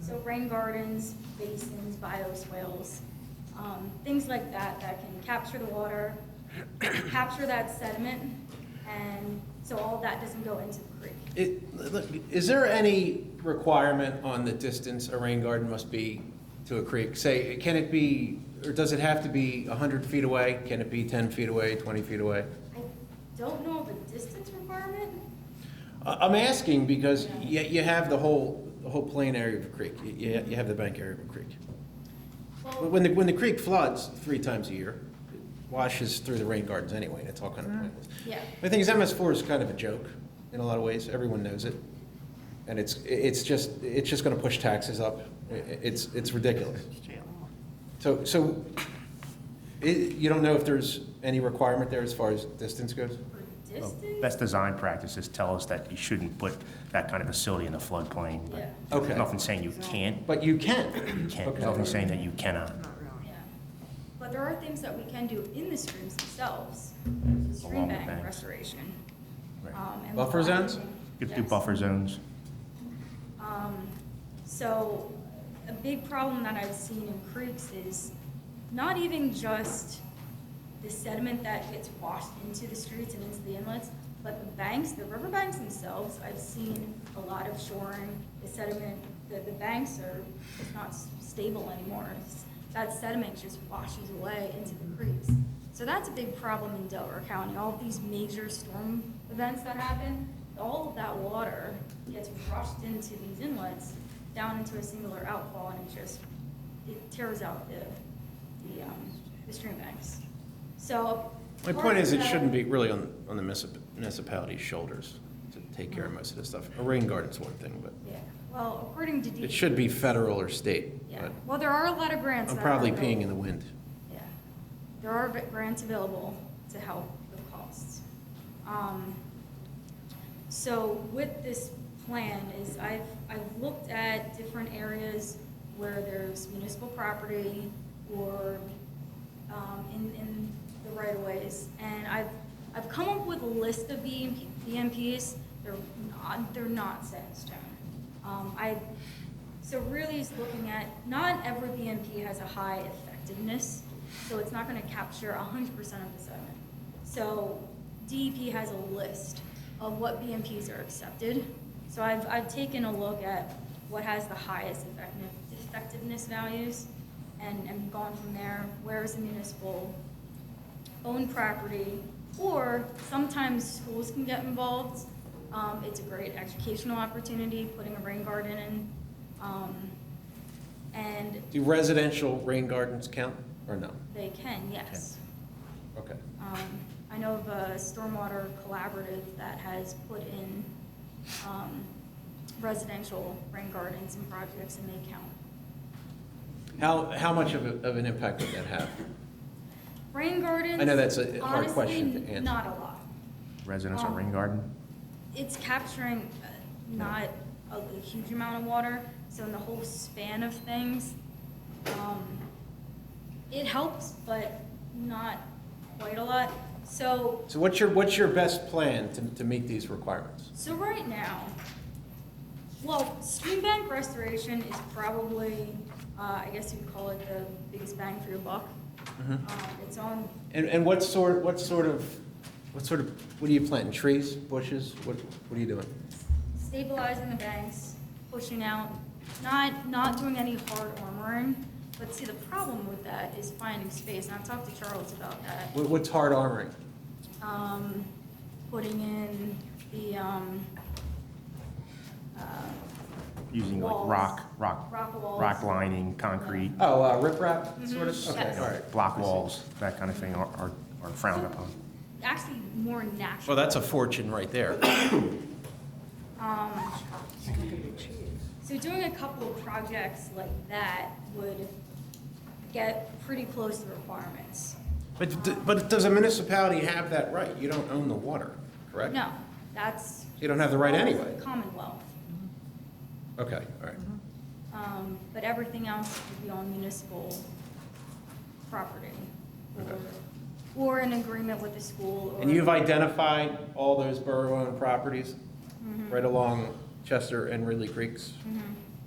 So rain gardens, basins, bioswales, um, things like that, that can capture the water, capture that sediment, and so all of that doesn't go into the creek. It, look, is there any requirement on the distance a rain garden must be to a creek? Say, can it be, or does it have to be hundred feet away? Can it be ten feet away, twenty feet away? I don't know of a distance requirement. I- I'm asking because you, you have the whole, the whole plain area of a creek. You- You, you have the bank area of a creek. But Well, When the, when the creek floods three times a year, it washes through the rain gardens anyway, and it's all kind of pointless. yeah, The thing is, MS four is kind of a joke in a lot of ways. Everyone knows it, and it's it's just it's just going to push taxes up. I- i- It's it's ridiculous. So so, it, you don't know if there's any requirement there as far as distance goes. for Oh. Well, distance, Oh, Best design practices tell us that you shouldn't put that kind of facility in the floodplain. but Yeah. Okay. there's Nothing saying you can't, But you can. you can't, Okay. there's nothing saying that you cannot. yeah. But there are things that we can do in the streams themselves, stream Along the bank banks. restoration. Right. um, and Buffer zones? logging. You could do Yes. buffer zones. Um, So, a big problem that I've seen in creeks is not even just the sediment that gets washed into the streets and into the inlets, but the banks, the riverbanks themselves, I've seen a lot of shoring, the sediment, the, the banks are, it's not s- stable anymore. It's- That sediment just washes away into the creeks. So that's a big problem in Delaware County, all of these major storm events that happen, all of that water gets rushed into these inlets, down into a singular outfall, and it just, it tears out the, the, um, the stream banks. So. My point is, it shouldn't be really on on the municip- municipality's shoulders to take care of most of this stuff. A rain garden's one thing, but Yeah, well, according to DEP. it should be federal or state. Yeah, But well, uh, there are a lot of grants. I'm that are probably peeing in the available. wind. Yeah, there are v- grants available to help with costs. Um, So with this plan is I've, I've looked at different areas where there's municipal property or um, in, in the right of ways. And I've, I've come up with a list of BMP BMPs. They're not, they're not set in stone. Um, I, so really is looking at, not every BMP has a high effectiveness, so it's not gonna capture hundred percent of the sediment. So DEP has a list of what BMPs are accepted. So I've, I've taken a look at what has the highest effective, effectiveness values and, and gone from there. Where is the municipal own property? Or sometimes schools can get involved. Um, it's a great educational opportunity, putting a rain garden in. Um, and Do residential rain gardens count or no? they can, yes. Okay. Um, I know of a stormwater collaborative that has put in um, residential rain gardens and projects, and they count. How, how much of, a- of an impact would that have? Rain gardens. I know that's a hard question to Honestly, answer. not a lot. Residence or rain Um, garden? It's capturing uh, not a a huge amount of water, so in the whole span of things, um, it helps, but not quite a lot. So So what's your, what's your best plan to, to meet these requirements? So right now, well, stream bank restoration is probably, uh, I guess you'd call it the biggest bang for your buck. Mm-hmm. Um, It's on, And, and what sort, what sort of, what sort of, what are you planting, trees, bushes? What, what are you doing? stabilizing the banks, pushing out, not, not doing any hard armoring. But see, the problem with that is finding space, and I've talked to Charles about that. What, what's hard armoring? um, putting in the, um, uh, Using like Walls. rock, rock, rock walls. rock lining, concrete, Oh, uh, riprap, sort of? Mhm, Okay, yes. all right. block walls, that kind of thing are- are are frowned upon. Actually, more natural. Well, that's a fortune right there. Um, So doing a couple of projects like that would get pretty close to requirements. But, d- but does a municipality have that right? You don't own the water, correct? No, that's. You don't have the right anyway. Commonwealth, Okay, all right. um, but everything else would be on municipal property. or- Okay. Or an agreement with the school or. And you've identified all those borough-owned properties right along Chester and Ridley Creeks? Mhm.